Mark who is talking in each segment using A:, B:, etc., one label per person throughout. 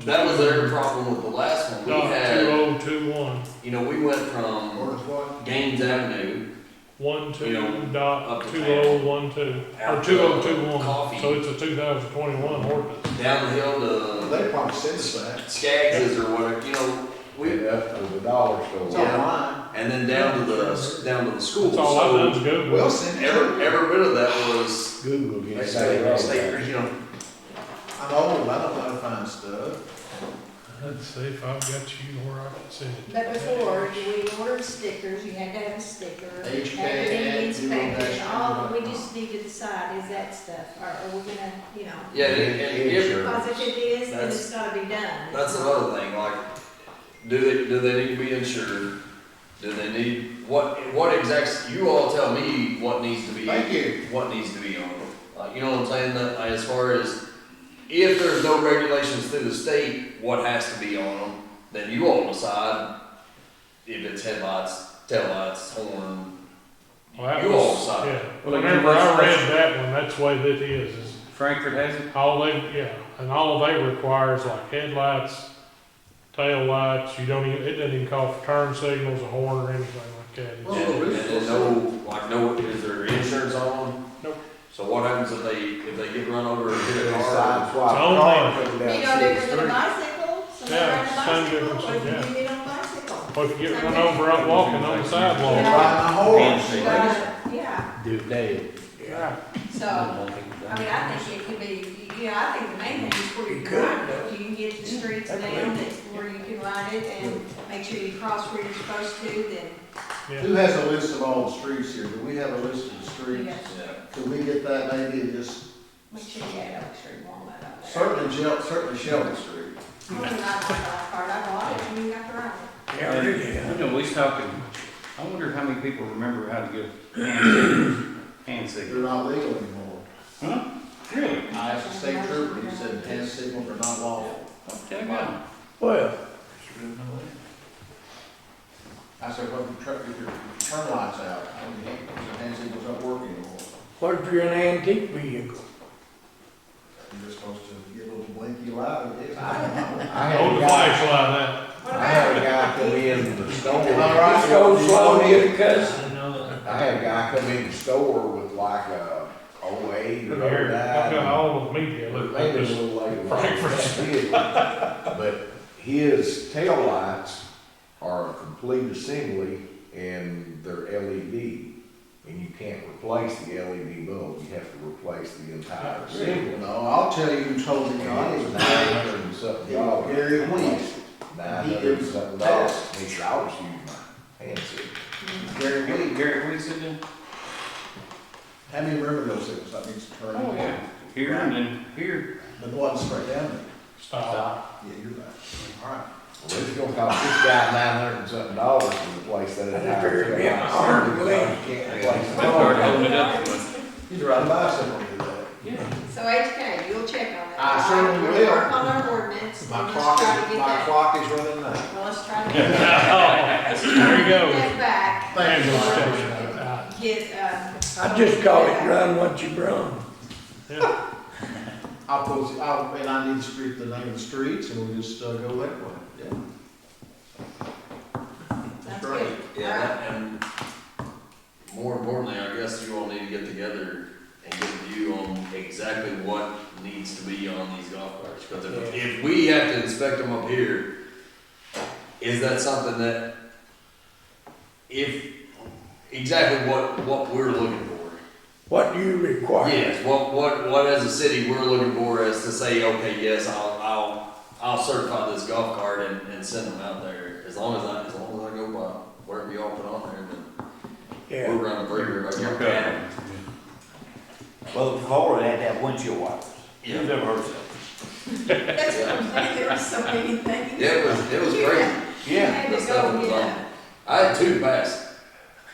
A: That was their problem with the last one. We
B: Doc two
A: had,
B: oh two one,
A: you know, we went from
C: Orders what?
A: Gaines Avenue
B: one two
A: Yeah. Up
B: dot
A: to
B: two
A: town.
B: oh one two, or
A: Out
B: two oh
A: of
B: two one,
A: coffee.
B: so it's a two thousand twenty-one ordinance.
A: down the hill to
C: They probably sent us that.
A: Skaggs's or whatever, you know, we,
D: That was a dollar
C: It's
D: store.
C: online.
A: and then down to the, down to the school.
B: That's all I've done
A: So
B: is go
C: We'll
B: with.
C: send it.
A: every, every bit of that was,
D: Google
A: they
D: gets
A: say,
D: that
A: they
D: wrong.
A: say, you know,
C: I'm old, I don't know how to find stuff.
B: Let's see if I've got you where I can send it.
E: But before, we ordered stickers, you had to have a sticker.
C: HK
E: Everything
C: and zero
E: inspected,
C: dash
E: all, we
C: zero.
E: just need to decide, is that stuff, or are we gonna, you know?
A: yeah, and, and if,
E: Because if it is, then
A: That's-
E: it's gotta be done.
A: That's another thing, like, do they, do they need to be insured? Do they need, what, what exact, you all tell me what needs to be,
C: Thank you.
A: what needs to be on them. Like, you know what I'm saying, that, like, as far as, if there's no regulations through the state, what has to be on them? Then you all decide if it's headlights, taillights, horn,
B: Well, that
A: you
B: was-
A: all decide.
B: Yeah,
F: Well, like,
B: whenever I
F: that's-
B: read that one, that's the way that it is, is
F: Frankfurt has it.
B: All they, yeah, and all they require is like headlights, tail lights. you don't even, it doesn't even call for turn signals, a horn or anything like that. It's-
C: Well,
A: And,
C: the
A: and then no, like, no, is there insurance on them?
B: Nope.
A: So what happens if they, if they get run over and hit a
D: They
A: car?
D: side swap
B: It's own
D: car
B: land.
D: and put it
E: You
D: down
E: know,
D: six
E: they're on a
D: three.
E: bicycle, somebody
B: Yeah,
E: on a
B: same
E: bicycle, or
B: difference,
E: if you get on a bicycle.
B: Or if you get run over out walking on the
C: Ride
B: sidewalk.
C: my horse.
E: But, yeah,
F: Do it day.
B: Yeah.
E: so, I mean, I think it could be, you know, I think the main thing is where you can ride it. You can get the streets down, that's where you can ride it, and make sure you cross where you're supposed to, then
B: Yeah.
C: Who has a list of all the streets here? Do we have a list of the streets?
E: Yes.
A: Yeah.
C: Could we get that maybe and just,
E: make sure you have extra walnut up there.
C: certainly Shel, certainly Shelby Street.
E: I'm not part, I bought it, and you got to ride it.
F: You know, we was talking, I wonder how many people remember how to give hand signals.
C: They're
F: Hand signals.
C: not legal anymore.
F: Huh? Really?
C: I asked the state trooper, he said hand signals are not lawful.
F: Okay, well,
C: I said, well, if your, tr- if your turn light's out, I mean, your hand signals don't work anymore.
G: What if you're an antique vehicle?
C: You're supposed to get a little blinky light, I guess. I don't know.
D: I had
B: Hold
D: a
B: the
D: guy,
B: flashlight
D: I had a guy come in the store.
C: All right.
G: Just go slow, get a cuss.
D: I had a guy come in the store with like a oh eight
B: out.
D: or
B: Here,
D: oh
B: I've got
D: nine.
B: all of the media, look, I
D: Maybe a
B: just,
D: little later.
B: Frankfurt.
D: But his taillights are a complete assembly and they're LED. And you can't replace the LED bulb, you have to replace the entire assembly.
C: No, I'll tell you who told me,
D: And
C: I
D: it
C: was
D: was nine
C: nine.
D: hundred and something
C: Yeah,
D: dollars.
C: Gary Wentz.
D: Nine hundred and something dollars. He said, I was using my hand signal.
C: Gary Wentz.
F: Gary, what you said then?
C: How many river hills it was, that means turn.
F: Oh, yeah. Here and then here.
C: But the one straight down there.
B: stop.
C: Yeah, you're right. All right.
D: Well, it's gonna cost this guy nine hundred and something dollars to replace that entire.
G: figured it'd be an arm and leg.
D: You can't replace it.
F: I started holding it up.
C: You can ride a bicycle and do that.
E: So HK, you'll check on that.
C: I certainly
E: We'll Work
C: will.
E: on our ordinance,
C: My
E: and
C: clock
E: let's try to
C: is,
E: get
C: my
E: that,
C: clock is running out.
E: well, let's try to get that.
B: There you go.
E: Get back,
C: Thank you.
B: Ambulance
C: Mark.
B: station. Uh,
E: get, um.
G: I just call it run what you brung.
B: yeah.
C: I'll post, I'll, and I need to street, the name of the streets, and we'll just uh, go that way, yeah.
E: That's good.
A: Yeah, that- and more importantly, I guess you all need to get together and get a view on exactly what needs to be on these golf carts. Because if, if we have to inspect them up here, is that something that, if, exactly what, what we're looking for?
G: What do you require?
A: Yes, what, what, what as a city we're looking for is to say, okay, yes, I'll, I'll, I'll certify this golf cart and, and send them out there. As long as I, as long as I go by whatever y'all put on there, then
G: Yeah,
A: we're around the breaker, right?
F: Your
A: Yeah.
F: cup.
H: Well, before it had that windshield wipers.
A: Yeah.
H: You've never heard of that.
E: That's what I'm saying, there were so many things.
A: Yeah, it was, it was
E: You
A: great.
E: had- You had
A: That
E: to
A: stuff
E: go
A: was
E: get
A: on.
E: a,
A: I had two pass.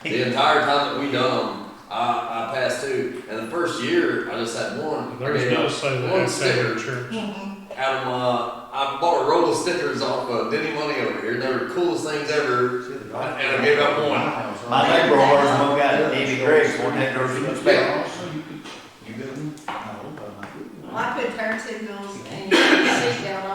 A: The entire time that we done them, I, I passed two. And the first year, I just had one. I
B: There's
A: gave
B: no
A: up
B: say that
A: one
B: outside
A: sticker
B: of church.
A: out of my, uh, I bought a roll of stickers off of Denny Money over here. They were the coolest things ever. And I gave up one.
H: My neighbor, ours, one guy, Davy Greggs, one day, there was a